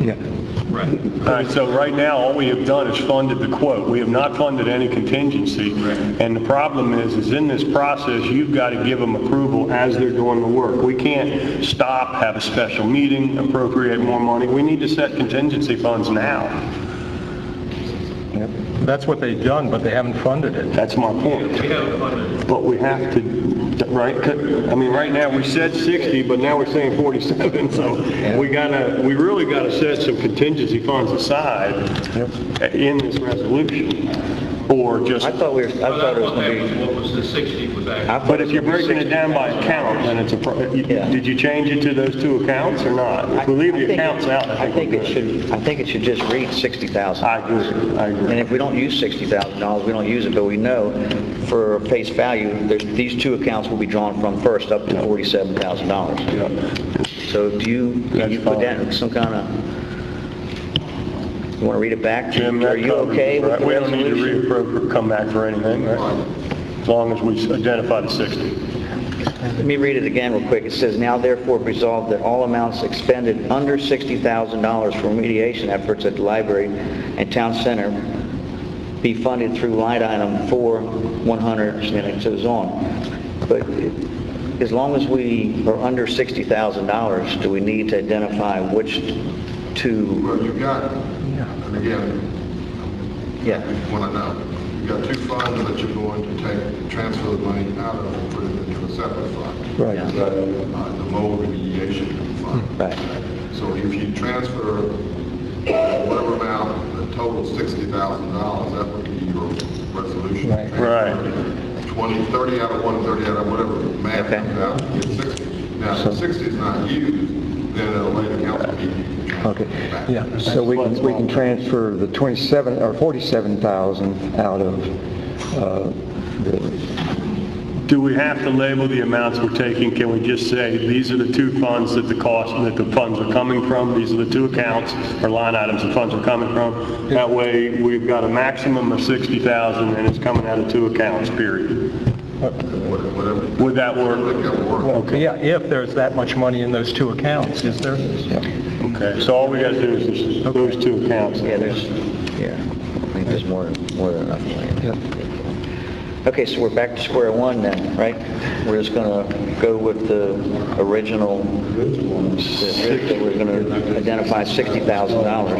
yet. Right. All right, so right now, all we have done is funded the quote. We have not funded any contingency. And the problem is, is in this process, you've got to give them approval as they're doing the work. We can't stop, have a special meeting, appropriate more money. We need to set contingency funds now. Yep. That's what they've done, but they haven't funded it. That's my point. We haven't funded. But we have to, right, I mean, right now, we said 60, but now we're saying 47, so we gotta, we really gotta set some contingency funds aside in this resolution, or just... I thought we were, I thought it was gonna be, What was the 60 was I that? thought But it if was you're gonna be breaking it down by account, then it's a, pro- you- did you change it to those two accounts or not? If we leave I the think- accounts out, I think we're it good. should, I think it should just read 60,000. I agree, I And agree. if we don't use $60,000, we don't use it, but we know for face value, there's, these two accounts will be drawn from first up to $47,000. So do you, can you That's put that fine. in some kind of, you want to read it back? to- Jim, Are that you covers okay it, with right? the We don't need to resolution? reappropriate, come back for anything, right? As long as we identify the 60. Let me read it again real quick. It says, "Now therefore resolved that all amounts expended under $60,000 for remediation efforts at the library and town center be funded through line item 4100," and it goes on. But as long as we are under $60,000, do we need to identify which two? Well, you've got, and again, Yeah. want to know, you've got two funds that you're going to take, transfer the money out of and put it into a separate fund. Right. Hmm. Uh, The mold remediation fund. Right. So if you transfer whatever amount, the total sixty thousand dollars, that would be your resolution. Right. Transfer Twenty, thirty out of one, thirty out of whatever, math Okay. comes out, you get sixty. Now, if sixty is not used, then at a later council meeting, you can transfer Okay, it back. yeah, so we can, we can transfer the 27, or 47,000 out of uh, the, Do we have to label the amounts we're taking? Can we just say, these are the two funds that the cost, that the funds are coming from, these are the two accounts or line items the funds are coming from? That way, we've got a maximum of 60,000 and it's coming out of two accounts, period. Whatever. Would that work? Whatever work. Yeah, if there's that much money in those two accounts, is there? Okay, so all we gotta do is just those two accounts. Yeah, there's, yeah, I think there's more, more than enough land. Okay, so we're back to square one then, right? We're just gonna go with the original, that we're gonna identify $60,000.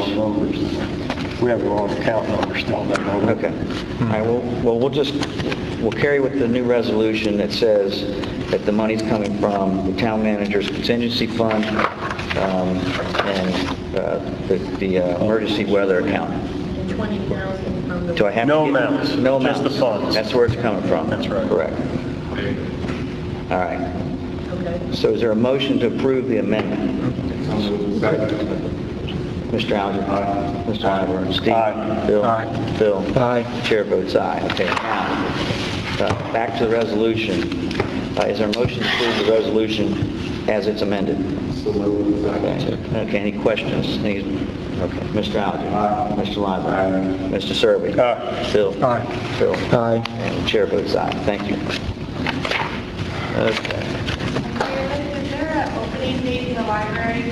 We have the wrong account number still, that one. Okay. All right, well, well, we'll just, we'll carry with the new resolution that says that the money's coming from the town manager's contingency fund um, and uh, the the uh, emergency weather account. 20,000 from the Do I have? to No get- amounts, No amounts. just the funds. That's where it's coming from. That's right. Correct. All right. Okay. So is there a motion to approve the amendment? Second. Mr. Alger? Aye. Mr. Oliver? Steve? Aye. Bill? Aye. Bill? Aye. Chair votes aye. Okay, now, uh, back to the resolution. Uh, Is there a motion to approve the resolution as it's amended? Okay, Okay, any questions? Any, okay, Mr. Alger? Aye. Mr. Oliver? Aye. Mr. Serby? Aye. Bill? Aye. Bill? aye. And the chair votes aye. Thank you. Okay. Is there an opening date in the library?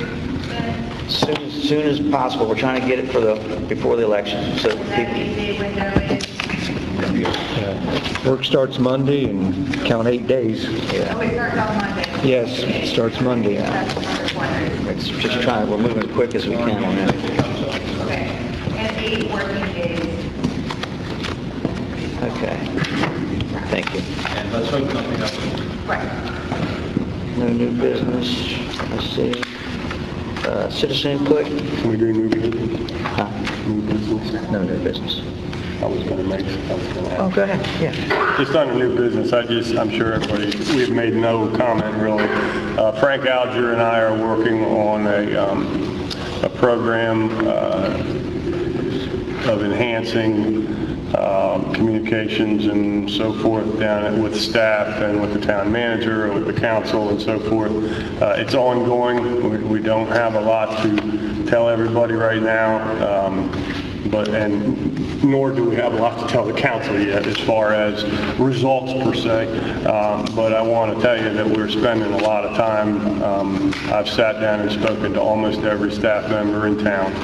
Then Soon, as soon as possible, we're trying to get it for the, before the election, so that people, means the window is, Work starts Monday and count eight days. oh, it starts on Monday. Yes, it starts Monday. That's what I was wondering. it's just trying, we're moving as quick as we can on that. Okay. And eight working days. Okay. Thank you. And let's hope nothing else. Right. No new business, I see. Uh, Citizen input? Can we do new business? Huh? New business? No new business. I was gonna make, I was gonna ask. Oh, go ahead, yeah. Just on the new business, I just, I'm sure everybody, we've made no comment really. Uh, Frank Alger and I are working on a, um, a program uh, of enhancing um, communications and so forth down at- with staff and with the town manager, with the council and so forth. Uh, It's ongoing. We- We don't have a lot to tell everybody right now. Um, But, and nor do we have a lot to tell the council yet as far as results per se. Um, But I want to tell you that we're spending a lot of time. Um, I've sat down and spoken to almost every staff member in town.